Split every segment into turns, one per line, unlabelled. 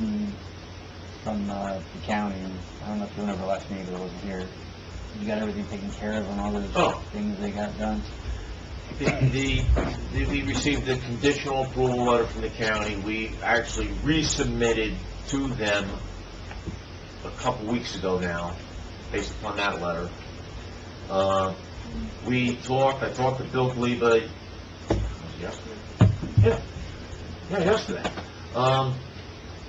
Mm. from uh, the county, I don't know if you remember last meeting, but I wasn't here. You got everything taken care of and all
Oh.
those things they got done?
The, the- the, we received a conditional approval letter from the county. We actually resubmitted to them a couple weeks ago now, based upon that letter. Uh, we talked, I talked to Bill Kaliba, was it yesterday? Yeah, yeah, yesterday. Um,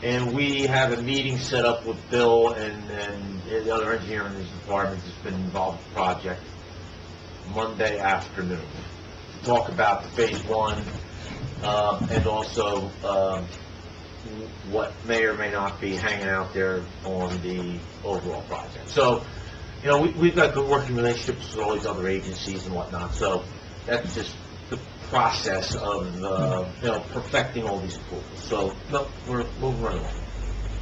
and we have a meeting set up with Bill and, and the other engineer in his department that's been involved with the project Monday afternoon to talk about the phase one, uh, and also, um, what may or may not be hanging out there on the overall project. So, you know, we, we've got good working relationships with all these other agencies and whatnot, so that's just the process of, uh, you know, perfecting all these approvals. So, no, we're, we're running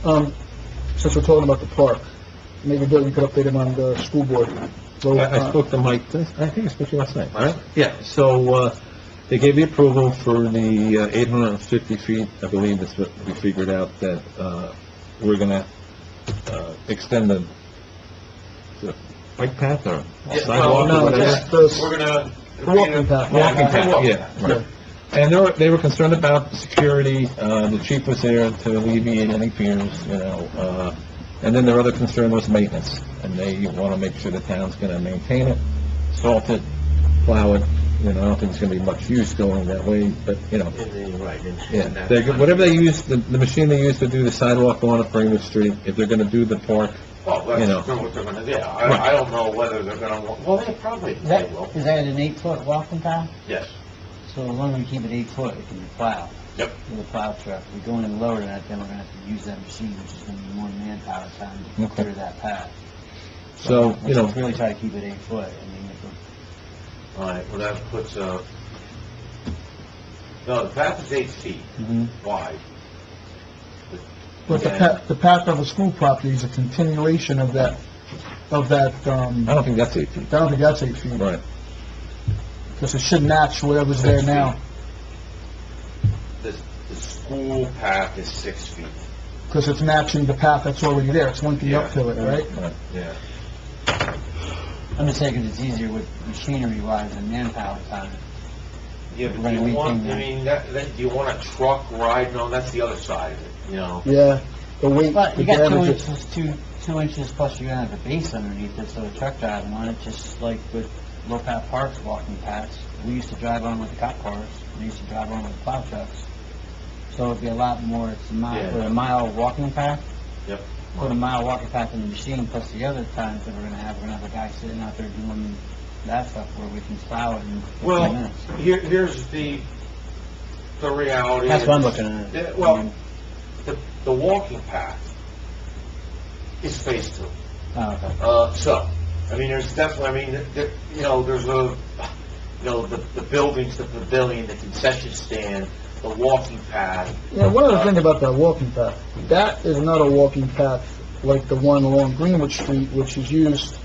along.
Um, since we're talking about the park, maybe Bill, you could update him on the school board. Well,
I I
uh,
spoke to Mike, this- I think I spoke to you last night,
Last
right?
night.
Yeah, so, uh, they gave the approval for the uh, 850 feet, I believe that's what we figured out, that, uh, we're gonna, uh, extend the, the bike path or
Yeah,
sidewalk
well,
or
No,
whatever.
just the
We're gonna...
the walking path.
Walking path,
Sidewalk.
yeah, right. And they were, they were concerned about security, uh, the chief was there to alleviate any fears, you know, uh, and then their other concern was maintenance, and they wanna make sure the town's gonna maintain it, salt it, plow it, you know, I don't think there's gonna be much use going that way, but, you know,
In the, right, in,
yeah,
in that-
they, whatever they use, the, the machine they use to do the sidewalk on Greenwood Street, if they're gonna do the park,
Well,
you know.
that's what they're gonna do.
Right.
I, I don't know whether they're gonna, want- well, they probably,
Is
they
that,
will,
is that an eight-foot walking path?
yes.
So as long as we keep it eight foot, it can be plowed.
Yep.
With a plow truck. If we go in lower than that, then we're gonna have to use that machine, which is gonna be more manpower time to
Okay.
clear that path.
so, you know,
Let's really try to keep it eight foot. I mean, if we-
All right, well, that puts, uh, no, the path is eight feet
Mhm.
wide.
But the path, the path of the school property is a continuation of that, of that, um,
I
I
don't think that's eight feet.
don't think that's eight feet,
Oh. Right.
because it should match whatever's there now,
The, the school path is six feet.
because it's matching the path that's already there, it's linking up to it, right?
Yeah.
I'm just saying 'cause it's easier with machinery wise and manpower time.
Yeah, but
Right,
do
we
you want,
can-
I mean, that, that, do you want a truck riding on, that's the other side of it, you know?
Yeah, the weight,
But you
the
got two
damage, it-
inches, two, two inches plus you're gonna have a base underneath it, so a truck driving on it, just like with low path parks, walking paths. We used to drive on with the cop cars, we used to drive on with plow trucks. So it'd be a lot more, it's a mile,
Yeah.
put a mile walking path.
Yep.
Put a mile walking path in the machine, plus the other times that we're gonna have, we're gonna have a guy sitting out there doing that stuff where we can plow it in fifteen
Well,
minutes.
Here, here's the, the reality.
That's
is-
what I'm looking at. Mm-hmm.
Yeah,
I
well,
mean,
the, the walking path is phase two.
oh, okay.
Uh, so, I mean, there's definitely, I mean, there- there, you know, there's a, you know, the, the buildings, the pavilion, the concession stand, the walking path.
yeah, one other thing about that walking path, that is not a walking path like the one along Greenwood Street, which is used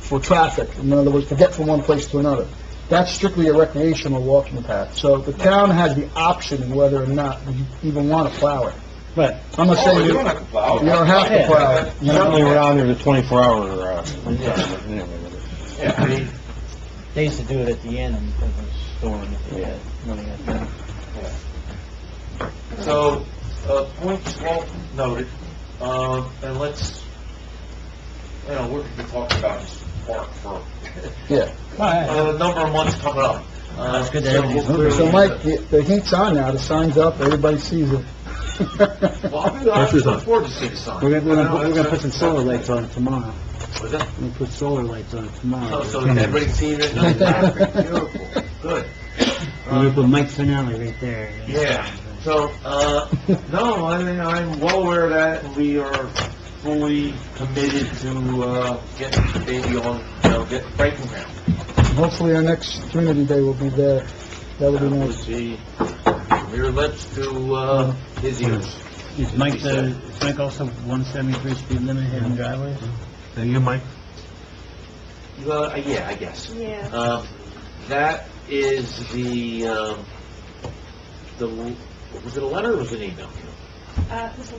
for traffic, in other words, to get from one place to another. That's strictly a recreational walking path, so the town has the option whether or not we even want to plow it.
Right.
I'm not
Oh,
saying
you
you
don't have to plow.
you don't have to plow it.
Yeah.
Certainly, we're on there the twenty-four hour, uh,
Yeah, I mean,
They used to do it at the end of the storm, if they had money at that.
so, uh, points well noted, um, and let's, you know, we're gonna be talking about this park for,
Yeah.
uh, a number of months coming up. Uh,
That's good to
so
have
we'll
these
clearly-
So Mike, the the heat's on now, the sign's up, everybody sees it.
Well, I'm gonna- I'm looking forward to seeing the sign.
We're gonna, we're gonna, we're gonna put some
That's-
solar lights on it tomorrow.
Was that-
We're gonna put solar lights on it
So,
tomorrow.
Oh, so everybody's seen it, no, exactly, beautiful, good.
We're gonna put Mike Finelli right there.
Yeah, so, uh, no, I mean, I'm well aware of that, and we are fully committed to, uh, getting the baby on, you know, get breaking ground.
Hopefully our next Trinity Day will be there. That would be
That
nice.
would be from your lips to, uh, his ears.
Is Mike the, is Mike also one seventy-three speed limit hidden driveways?
Now, you, Mike?
Uh, yeah, I guess.
Yeah.
Um, that is the, um, the, was it a letter or was it an email?
Uh, Mr.